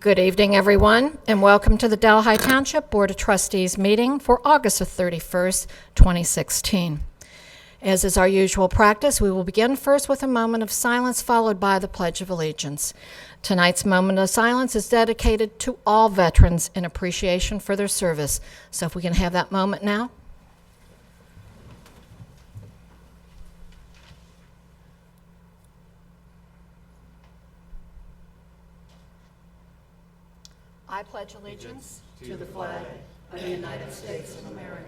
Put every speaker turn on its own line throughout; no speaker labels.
Good evening, everyone, and welcome to the Delhi Township Board of Trustees meeting for August the 31st, 2016. As is our usual practice, we will begin first with a moment of silence followed by the Pledge of Allegiance. Tonight's moment of silence is dedicated to all veterans in appreciation for their service. So if we can have that moment now. I pledge allegiance to the flag of the United States of America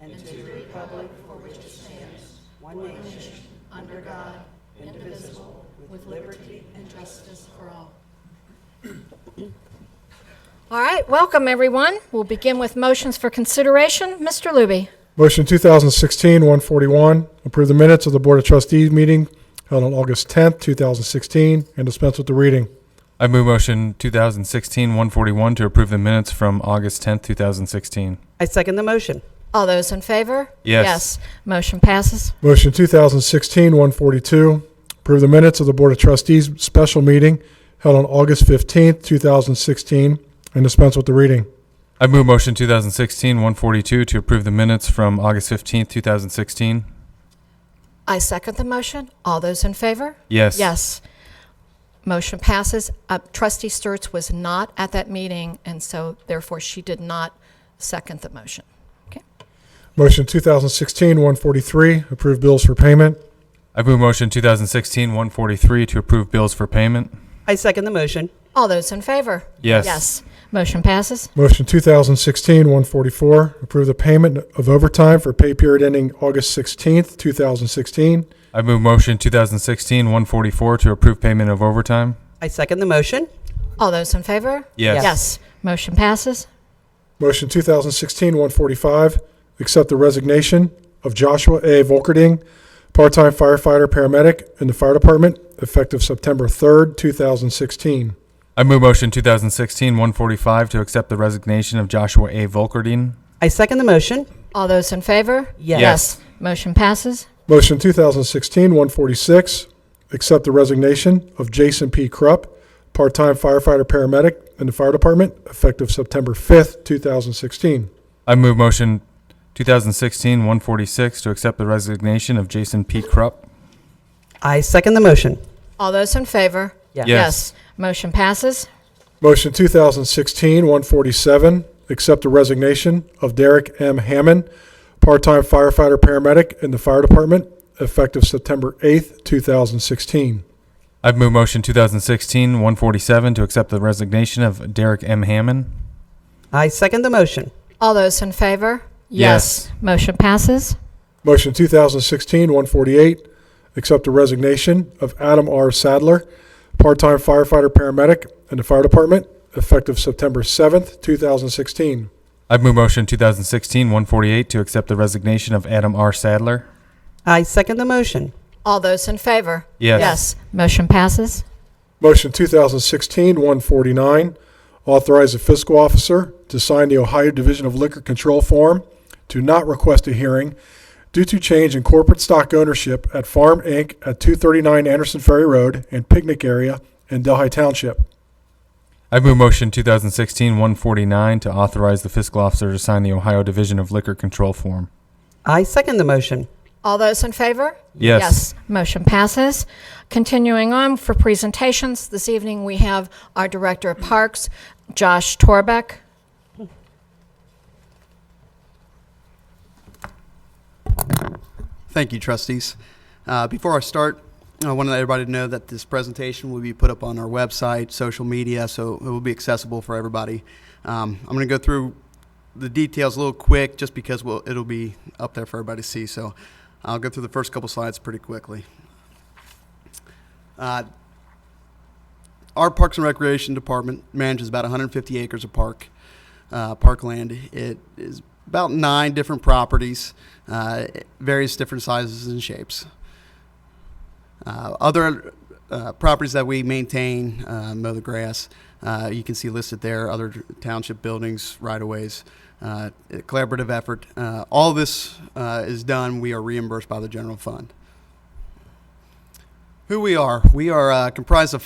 and to the republic for which it stands, one nation, under God, indivisible, with liberty and justice for all. All right, welcome, everyone. We'll begin with motions for consideration. Mr. Luby.
Motion 2016-141, approve the minutes of the Board of Trustees meeting held on August 10th, 2016, and dispense with the reading.
I move motion 2016-141 to approve the minutes from August 10th, 2016.
I second the motion.
All those in favor?
Yes.
Motion passes.
Motion 2016-142, approve the minutes of the Board of Trustees special meeting held on August 15th, 2016, and dispense with the reading.
I move motion 2016-142 to approve the minutes from August 15th, 2016.
I second the motion. All those in favor?
Yes.
Yes. Motion passes. Uh, Trustee Sturts was not at that meeting, and so therefore she did not second the motion. Okay.
Motion 2016-143, approve bills for payment.
I move motion 2016-143 to approve bills for payment.
I second the motion.
All those in favor?
Yes.
Yes. Motion passes.
Motion 2016-144, approve the payment of overtime for pay period ending August 16th, 2016,
I move motion 2016-144 to approve payment of overtime.
I second the motion.
All those in favor?
Yes.
Yes. Motion passes.
Motion 2016-145, accept the resignation of Joshua A. Volkerding, part-time firefighter paramedic in the fire department, effective September 3rd, 2016.
I move motion 2016-145 to accept the resignation of Joshua A. Volkerdine.
I second the motion.
All those in favor?
Yes.
Yes.
Motion passes.
Motion 2016-146, accept the resignation of Jason P. Krupp, part-time firefighter paramedic in the fire department, effective September 5th, 2016.
I move motion 2016-146 to accept the resignation of Jason P. Krupp.
I second the motion.
All those in favor?
Yes.
Motion passes.
Motion 2016-147, accept the resignation of Derek M. Hammond, part-time firefighter paramedic in the fire department, effective September 8th, 2016.
I've moved motion 2016-147 to accept the resignation of Derek M. Hammond.
I second the motion.
All those in favor?
Yes.
Motion passes.
Motion 2016-148, accept the resignation of Adam R. Sadler, part-time firefighter paramedic in the fire department, effective September 7th, 2016.
I've moved motion 2016-148 to accept the resignation of Adam R. Sadler.
I second the motion.
All those in favor?
Yes.
Yes. Motion passes.
Motion 2016-149, authorize the fiscal officer to sign the Ohio Division of Liquor Control form to not request a hearing due to change in corporate stock ownership at Farm Inc. at 239 Anderson Ferry Road and Picnic Area in Delhi Township.
I've moved motion 2016-149 to authorize the fiscal officer to sign the Ohio Division of Liquor Control form.
I second the motion.
All those in favor?
Yes.
Motion passes. Continuing on for presentations, this evening we have our Director of Parks, Josh Torbeck.
Thank you, trustees. Uh, Before I start, I want to let everybody know that this presentation will be put up on our website, social media, so it will be accessible for everybody. Um, I'm going to go through the details a little quick, just because we'll- it'll be up there for everybody to see, so I'll go through the first couple slides pretty quickly. Uh, Our Parks and Recreation Department manages about 150 acres of park, uh, parkland. It is about nine different properties uh, various different sizes and shapes. Uh, other uh, properties that we maintain, uh, mow the grass, uh, you can see listed there, other township buildings, right of ways, uh, a collaborative effort. Uh, all this uh, is done, we are reimbursed by the general fund. Who we are? We are uh, comprised of